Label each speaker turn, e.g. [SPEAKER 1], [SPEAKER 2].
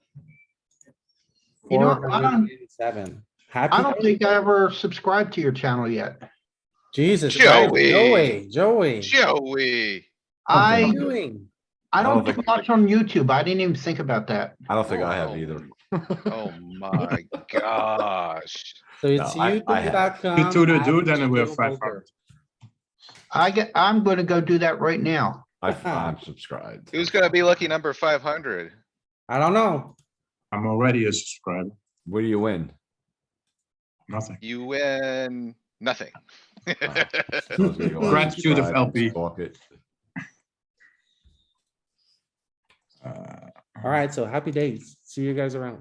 [SPEAKER 1] You
[SPEAKER 2] Four
[SPEAKER 1] know, I
[SPEAKER 2] hundred
[SPEAKER 1] don't-
[SPEAKER 2] eighty-seven.
[SPEAKER 1] I
[SPEAKER 2] Happy,
[SPEAKER 1] don't
[SPEAKER 2] days.
[SPEAKER 1] think I ever subscribed to your channel yet.
[SPEAKER 2] Jesus Christ,
[SPEAKER 3] Joey.
[SPEAKER 2] Joey, Joey.
[SPEAKER 3] Joey,
[SPEAKER 2] What are
[SPEAKER 1] I,
[SPEAKER 2] you doing?
[SPEAKER 1] I
[SPEAKER 4] don't
[SPEAKER 1] don't do
[SPEAKER 4] think-
[SPEAKER 1] much on YouTube. I didn't even think about that.
[SPEAKER 4] I don't think I have
[SPEAKER 3] Oh.
[SPEAKER 4] either.
[SPEAKER 3] oh my gosh.
[SPEAKER 2] So it's
[SPEAKER 4] I- I have.
[SPEAKER 2] youtube.com.
[SPEAKER 5] to the dude,
[SPEAKER 2] average
[SPEAKER 5] then we're
[SPEAKER 2] total
[SPEAKER 5] five
[SPEAKER 2] poker.
[SPEAKER 1] I get, I'm gonna go do that right now.
[SPEAKER 4] I, I'm subscribed.
[SPEAKER 3] Who's gonna be lucky number five hundred?
[SPEAKER 2] I don't know.
[SPEAKER 5] I'm already a subscriber.
[SPEAKER 4] Where do you win?
[SPEAKER 5] Nothing.
[SPEAKER 3] You win nothing.
[SPEAKER 4] So it's gonna go
[SPEAKER 5] Gratitude of
[SPEAKER 4] unsubscribed,
[SPEAKER 5] LP.
[SPEAKER 4] fuck it.
[SPEAKER 5] Uh, Uh,
[SPEAKER 2] Alright, so happy days. See you guys around.